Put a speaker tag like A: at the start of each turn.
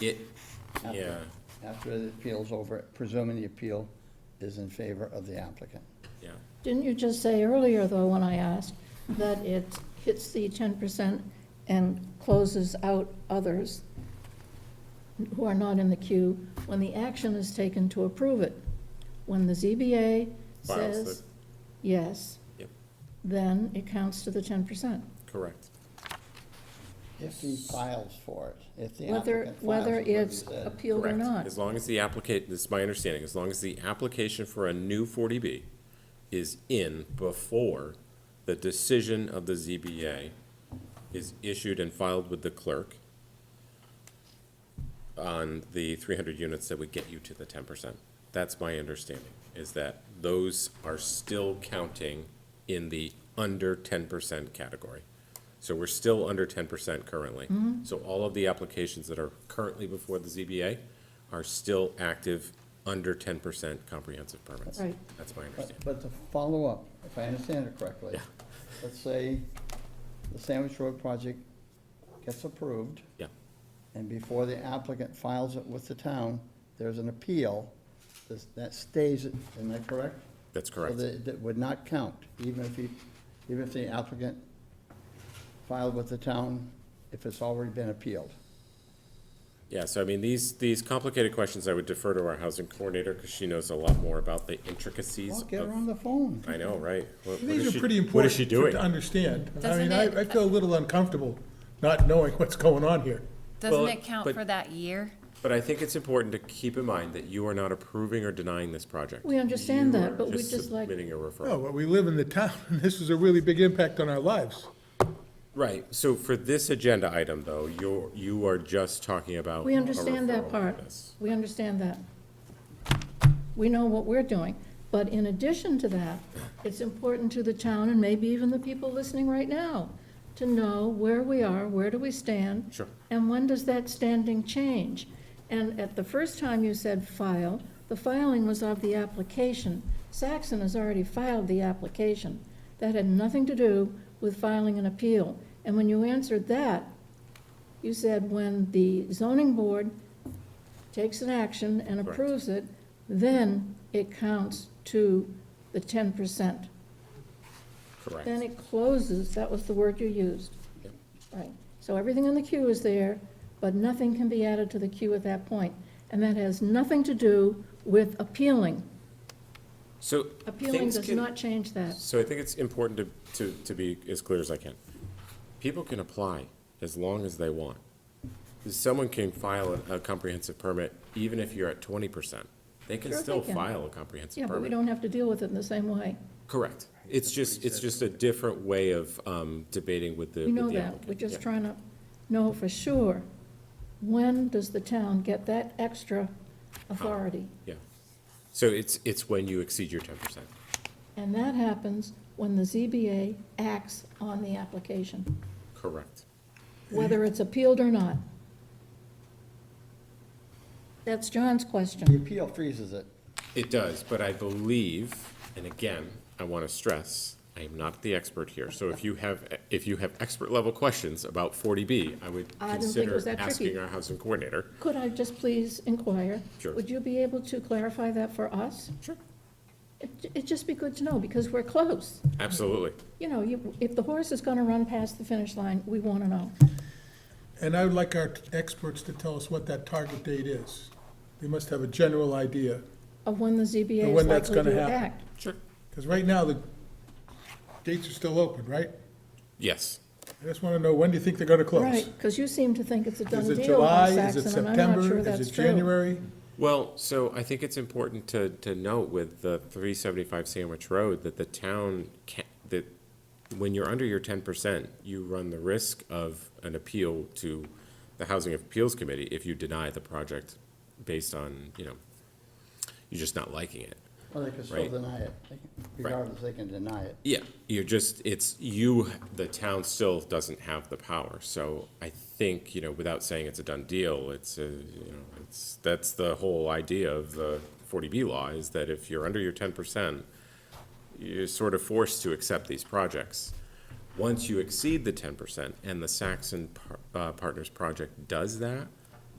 A: It,
B: after-
A: yeah,
B: After the appeal's over, presuming the appeal is in favor of the applicant.
A: yeah.
C: Didn't you just say earlier, though, when I asked, that it hits the ten percent and closes out others who are not in the queue when the action is taken to approve it? When the ZBA
A: Files
C: says
A: that-
C: yes,
A: Yep,
C: then it counts to the ten percent.
A: correct.
B: If he files for it, if the
C: Whether,
B: applicant files
C: whether
B: is what you
C: it's uh,
B: said.
C: appealed or
A: Correct.
C: not.
A: As long as the applicant, this is my understanding, as long as the application for a new forty B is in before the decision of the ZBA is issued and filed with the clerk on the three hundred units that would get you to the ten percent. That's my understanding, is that those are still counting in the under ten percent category. So we're still under ten percent currently. So all of the applications that are currently before the ZBA are still active under ten percent comprehensive permits.
C: Right.
A: That's my
B: But,
A: understanding.
B: but to follow up, if I understand it correctly, let's say the Sandwich Road project gets approved,
A: Yeah,
B: and before the applicant files it with the town, there's an appeal, this- that stays, it. am I correct?
A: that's
B: So
A: correct.
B: that, that would not count, even if he, even if the applicant filed with the town, if it's already been appealed.
A: Yeah, so I mean, these, these complicated questions I would defer to our housing coordinator because she knows a lot more about the intricacies
B: Well,
A: of.
B: get her on the phone.
A: I know, right? What- what is
D: Mm-hmm. These
A: she-
D: are pretty
A: What is she
D: important to-
A: doing?
D: to understand. I mean,
E: Doesn't
D: I,
E: it-
D: I feel a little uncomfortable not knowing what's going on here.
A: Well,
E: Doesn't it count
A: but-
E: for that year?
A: But I think it's important to keep in mind that you are not approving or denying this project.
C: We understand
A: You
C: that,
A: are
C: but we'd just like-
A: Submitting a
D: No,
A: referral.
D: but Oh, we live in the town, and this is a really big impact on our lives.
A: Right, so for this agenda item, though, you're, you are just talking about.
C: We
A: a
C: understand that
A: referral
C: part.
A: notice.
C: We understand that. We know what we're doing. But in addition to that, it's important to the town and maybe even the people listening right now to know where we are, where do we stand?
A: Sure.
C: And when does that standing change? And at the first time you said file, the filing was of the application. Saxon has already filed the application. That had nothing to do with filing an appeal. And when you answered that, you said when the zoning board takes an action and
A: Correct.
C: approves it, then it counts to the ten percent.
A: Correct.
C: Then it closes, that was the word you used.
A: Yep.
C: Right, so everything in the queue is there, but nothing can be added to the queue at that point. And that has nothing to do with appealing.
A: So.
C: Appealing
A: things
C: does
A: can-
C: not change that.
A: So I think it's important to, to, to be as clear as I can. People can apply as long as they want. Someone can file a a comprehensive permit even if you're at twenty percent. They can
C: Sure they
A: still
C: can.
A: file a
C: Yeah,
A: comprehensive
C: but we
A: permit.
C: don't have to deal with it in the same way.
A: Correct. It's just, it's just a different way of um, debating with the,
C: We know
A: with the
C: that, we're
A: applicant.
C: just
A: Yeah.
C: trying to know for sure, when does the town get that extra authority?
A: Yeah. So it's, it's when you exceed your ten percent.
C: And that happens when the ZBA acts on the application,
A: Correct.
C: whether it's appealed or not. That's John's
B: The
C: question.
B: appeal freezes it.
A: It does, but I believe, and again, I want to stress, I am not the expert here. So if you have, if you have expert level questions about 40B, I would
C: I didn't think it
A: consider
C: was that tricky.
A: asking our housing coordinator.
C: Could I just please inquire?
A: Sure.
C: Would you be able to clarify that for us?
A: Sure.
C: It, it'd just be good to know, because we're close.
A: Absolutely.
C: You know, you, if the horse is gonna run past the finish line, we wanna know.
D: And I would like our experts to tell us what that target date is. They must have a general idea,
C: of when the ZBA
D: And
C: is
D: when that's
C: likely to
D: gonna happen.
C: act.
A: Sure.
D: because right now, the gates are still open, right?
A: Yes.
D: I just want to know, when do you think they're going to close?
C: Right, because you seem to think it's a done
D: Is it
C: deal on
D: July? Is it
C: Saxon, and I'm not
D: September?
C: sure
D: Is
C: that's
D: it
C: true.
D: January?
A: Well, so I think it's important to, to note with the 375 Sandwich Road that the town can, that when you're under your 10%, you run the risk of an appeal to the Housing Appeals Committee if you deny the project based on, you know, you're just not liking it.
B: Well, they can still
A: Right.
B: deny it. They can- Regardless, they can deny it.
A: Yeah, you're just, it's, you, the town still doesn't have the power, so I think, you know, without saying it's a done deal, it's, a you know, it's, that's the whole idea of the forty B law, is that if you're under your ten percent, you're sort of forced to accept these projects. Once you exceed the ten percent, and the Saxon Par- uh, Partners project does that,